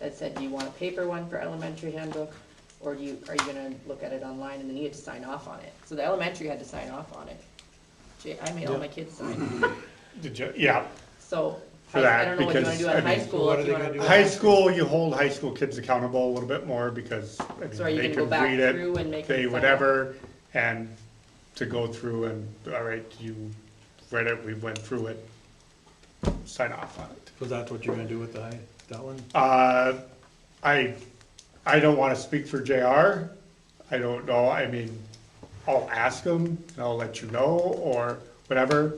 that said, do you want a paper one for elementary handbook? Or do you, are you gonna look at it online and then you had to sign off on it? So the elementary had to sign off on it. Jay, I made all my kids sign, Did you, yeah, so For I I that, don't know what you wanna because, do on I high mean- school. if What are you they wanna gonna put- do? high school, you hold high school kids accountable a little bit more because, I mean, So are you they gonna go could back read it, through and make them they sign off? whatever, and to go through and, all right, you read it, we went through it, sign off on it. So that's what you're gonna do with the, high- that one? Uh, I, I don't wanna speak for JR, I don't know, I mean, I'll ask him, and I'll let you know, or whatever.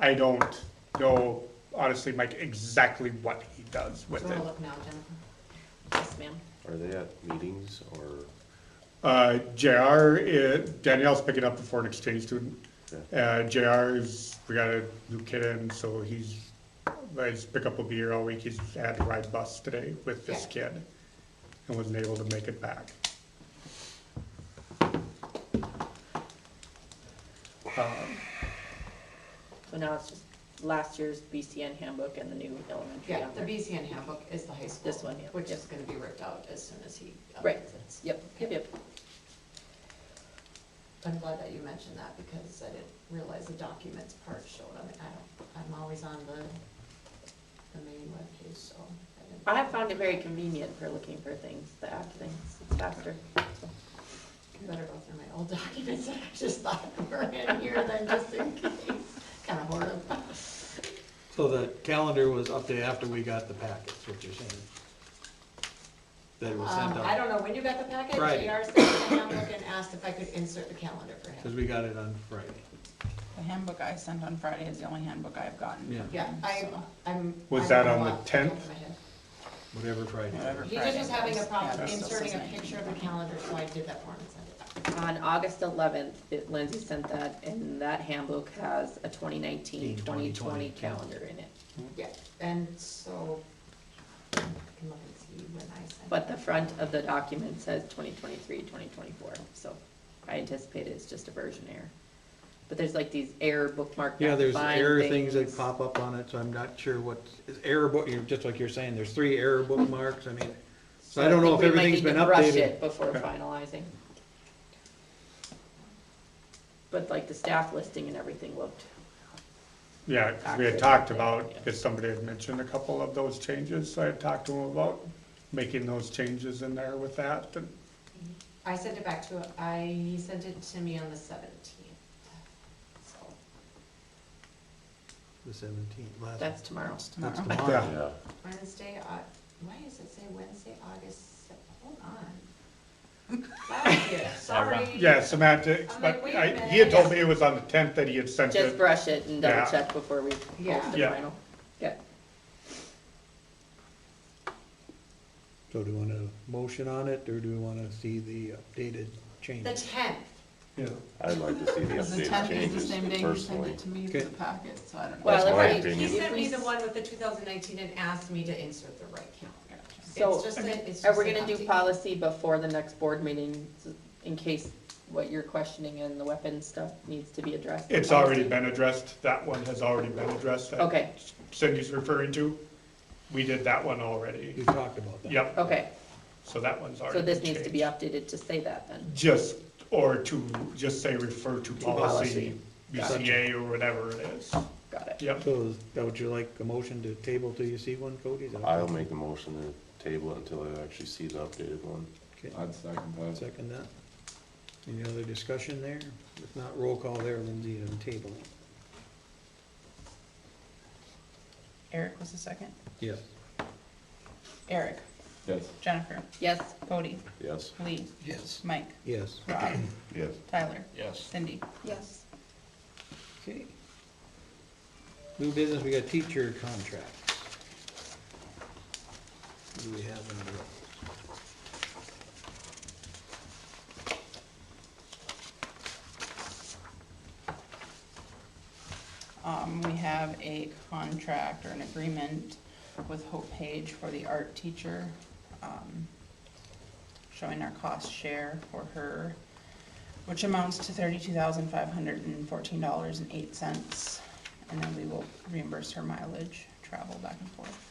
I don't know, honestly, Mike, exactly what he does with it. look now, Jennifer. Yes, ma'am. Are they at meetings or, Uh, JR, is- Danielle's picking up the foreign exchange student. Uh, JR is, we got a new kid in, so he's, his pickup will be here all week. He's had to ride bus today with this kid and wasn't able to make it back. So now it's just last year's BCN handbook and the new elementary Yeah, on the there. BCN handbook is the high school. This one, yeah. Which is gonna be ripped out as soon as he Right. updates it. Yep, yep, yep. I'm glad that you mentioned that because I didn't realize the documents part showed. I mean, I don't, I'm always on the, the main webpage, so I didn't. I have found it very convenient for looking for things, the app things, it's faster. I Better go through my old documents that I just thought were in here than just in case. Kinda horrible. So the calendar was updated after we got the packets, what you're saying? That it was sent Um, I out, don't know, when you got the packet, Friday. JR sent the handbook and asked if I could insert the calendar for cause him. we got it on Friday. The handbook I sent on Friday is the only handbook I've gotten. Yeah, Yeah, I, I'm. Was I that don't on know the off top of 10th? my head. whatever Friday. Whatever. He just was Friday. having a problem Yeah, that's still inserting a says picture of the calendar, so I did that for him and sent it back. On August eleventh, Lindsay sent that, and that handbook has a 2019-2020 calendar in it. Yeah, and so, I can look and see when I sent. But the it. front of the document says 2023-2024. so I anticipate it's just a version error. But there's like these error bookmark. Yeah, there's find error things that things. pop up on it, so I'm not sure what, is error book, you're, just like you're saying, there's three error bookmarks, I mean, so I don't know think if we might everything's need to been Brush updated. it before Okay. finalizing. But like the staff listing and everything looked, Yeah, 'cause we had talked about, because somebody had mentioned a couple of those changes, so I had talked to him about making those changes in there with that. and- I sent it back to, I, he sent it to me on the seventeenth, so. The seventeenth, last. that's tomorrow. It's That's tomorrow. tomorrow. yeah, Wednesday, uh, why does it say Wednesday, August, se- hold on. Last year, sorry. Yeah, semantics, I'm like, but wait a I, minute. he had told me it was on the tenth that he had sent it. Just brush it and double Yeah. check before we post the Yeah. Yeah. final. Yeah, So do we want a motion on it, or do we wanna see the updated change? The tenth, Yeah. I'd like to see the Because the updated tenth is the changes same day you sent personally. it to me for Okay. the packet, so I don't know. Well, That's my right, he opinion. sent me the one with the two thousand nineteen and asked me to insert the right calendar. so It's just a- it's are we just gonna an do update. policy before the next board meeting in case what you're questioning and the weapon stuff needs to be addressed? in It's already policy? been addressed, that one has already been addressed. that Okay. Cindy's referring to, we did that one We already, talked about that. yep, Okay, so that one's already so this been needs to be changed. updated to say that then. Just, or to, just say refer to policy, policy. BCA or whatever it is, Got it. yep. So is that would you like, a motion to table till you see one, Cody? Is that- I'll make the motion to table it until I actually see the updated one. Okay, I'd second that. Second that. Any other discussion there? If not, roll call there, Lindsay, on table. Eric was the second. Yes. Eric, Yes. Jennifer, Yes, Cody, Yes? Lee, Yes. Mike, Yes. Rob, Yes. Tyler, Yes. Cindy. yes. Okay. New business, we got teacher contracts. What Do we have under? Um, we have a contract or an agreement with Hope Page for the art teacher, um, showing our cost share for her, which amounts to thirty-two thousand five hundred and fourteen dollars and eight cents. And then we will reimburse her mileage, travel back and forth.